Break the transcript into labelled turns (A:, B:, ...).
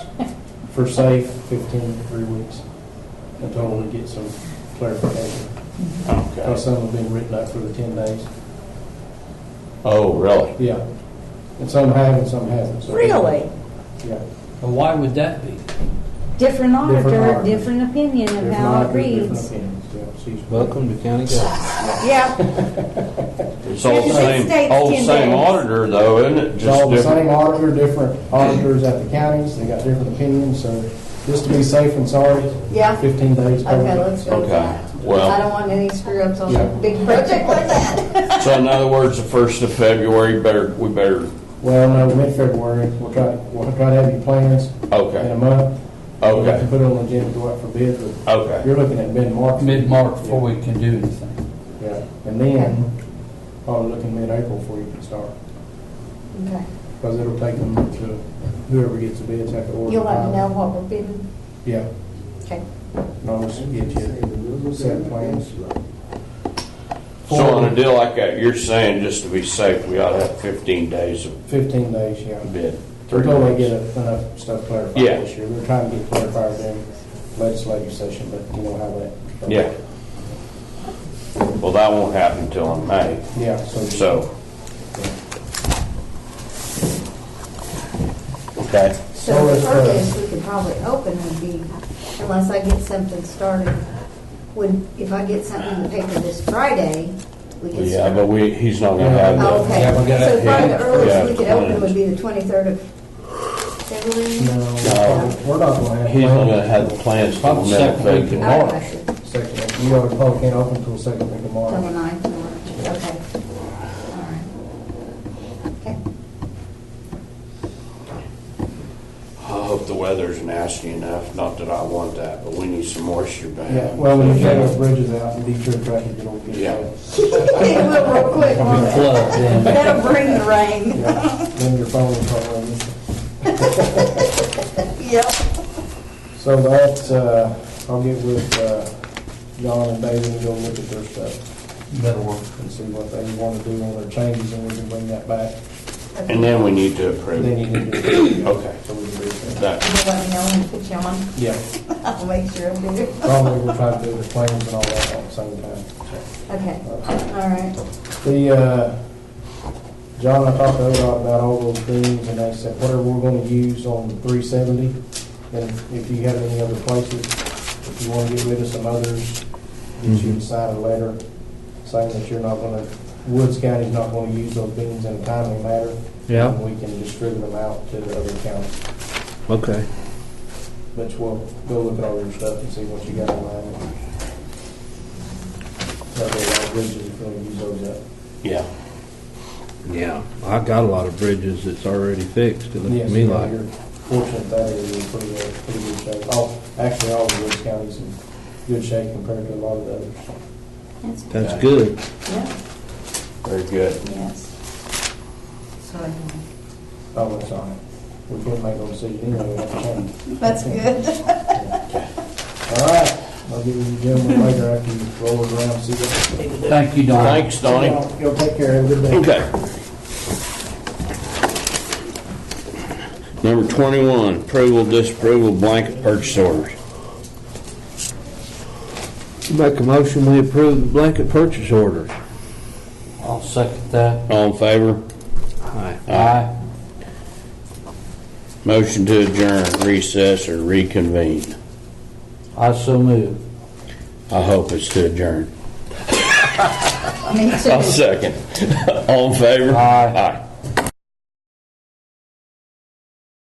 A: for safe, 15 to three weeks, until we get some clarification. Because
B: Okay.
A: some have been written up for the 10 days.
B: Oh, really?
A: Yeah. And some have and some haven't. so-
C: Really?
A: Yeah.
D: Well, why would that be?
C: Different auditor,
A: auditor.
C: different opinion of
A: There's
C: how it
A: not been different
C: reads.
A: opinions, yeah, she's-
E: Welcome to county government.
C: Yeah,
B: It's all the
C: It
B: same,
C: states
B: all the
C: 10
B: same
C: days.
B: auditor though, isn't it?
A: It's all
B: Just
A: the same
B: different.
A: auditor, different auditors at the counties, they got different opinions, so just to be safe and sorry,
F: Yeah.
A: 15 days.
F: Okay, let's go with
B: Okay,
F: that. 'Cause
B: well-
F: I don't want any screw-ups on
A: Yeah.
F: a big project like that.
B: So in other words, the first of February, better, we better,
A: Well, no, mid-February, we'll try, we'll try to have your plans in a
B: okay,
A: month. We'll have to
B: okay,
A: Put it on the agenda, go out for bid, but
B: okay.
A: you're looking at mid-March.
D: Mid-March before we can do anything.
A: Yeah, and then, probably looking mid-April before you can start,
F: Okay.
A: because it'll take them to, whoever gets the bids have to order.
F: You'll let
A: them.
F: me know what we're bidding?
A: Yeah,
F: Okay.
A: and I'll just get you set plans.
B: So on a deal like that, you're saying just to be safe, we ought to have 15 days of
A: 15 days, yeah.
B: bid. Three
A: Until they
B: weeks.
A: get enough stuff clarified
B: Yeah.
A: this year. We're trying to get clarified in legislative session, but you know how that.
B: Yeah. Well, that won't happen till in May,
A: Yeah, so.
B: so. Okay.
A: So
F: So
A: is,
F: the
A: uh,
F: earliest we could probably open would be, unless I get something started, would, if I get something in the paper this Friday, we could
B: Yeah,
F: start.
B: but we, he's not gonna have the.
F: Oh, Okay,
D: Yeah, we gotta-
F: so probably the
B: yeah,
F: earliest
B: yeah,
F: we could open
B: plans.
F: would be the 23rd of February?
A: No, we're not gonna have.
B: uh, He's not gonna have the plans till
D: Probably
B: the middle of
D: second week in
B: February.
D: March.
F: Okay.
A: Second, you already probably can't open until second thing
F: Till the
A: tomorrow.
F: ninth of March, okay. All right. Okay.
B: I hope the weather's nasty enough, not that I want that, but we need some moisture back.
A: Yeah, well, when you take those bridges out, and detour traffic, it'll get.
B: Yeah.
A: bad.
F: It will real quick, won't it?
D: Floods in.
F: That'll bring the rain.
A: Yeah, Then your phone will probably.
F: Yep.
A: So that, uh, I'll get with, uh, John and David and go look at their stuff
D: That'll work.
A: and see what they wanna do on their changes and we can bring that back.
B: And then we need to approve.
A: Then you need to.
B: Okay.
A: So we can do that.
B: That,
F: You'll let me know when to put you on.
A: Yeah,
F: I'll make sure I'm there.
A: probably we'll try to do the claims and all that at the same time.
F: Okay, all right.
A: The, uh, John, I talked to ODOT about all those things and they said whatever we're gonna use on three seventy, and if you have any other places, if you wanna get rid of some others, get you to sign a letter saying that you're not gonna, Woods County's not gonna use those beans in a timely manner.
E: Yeah.
A: And we can distribute them out to the other counties,
E: Okay.
A: but we'll go look at all your stuff and see what you got in mind. That'd be a lot of bridges if we use those up.
B: yeah.
E: Yeah. I got a lot of bridges that's already fixed. It looks to
A: Yes,
E: me
A: yeah,
E: like.
A: you're fortunate that area is in pretty, good- pretty good shape. All, actually, all of Woods County's in good shape compared to a lot of the others.
F: That's good.
E: That's good.
F: Yeah,
B: Very good.
F: yes. Sorry.
A: Oh, it's on it. We can't make a decision anyway, we have to change.
F: That's good.
A: All right, I'll give you the gentleman later after you roll it around, see what.
D: Thank you, Don.
B: Thanks, Donnie.
A: Y'all- Y'all take care, have a good day.
B: Okay. Number 21, approval, disapproval, blanket purchase orders.
E: Make a motion, we approve the blanket purchase orders.
D: I'll second that.
B: All in favor?
E: Aye.
D: Aye.
B: Motion to adjourn, recess, or reconvene.
D: I so move.
B: I hope it's to adjourn.
F: Me too.
B: I'll second. All in favor?
D: Aye.
B: Aye.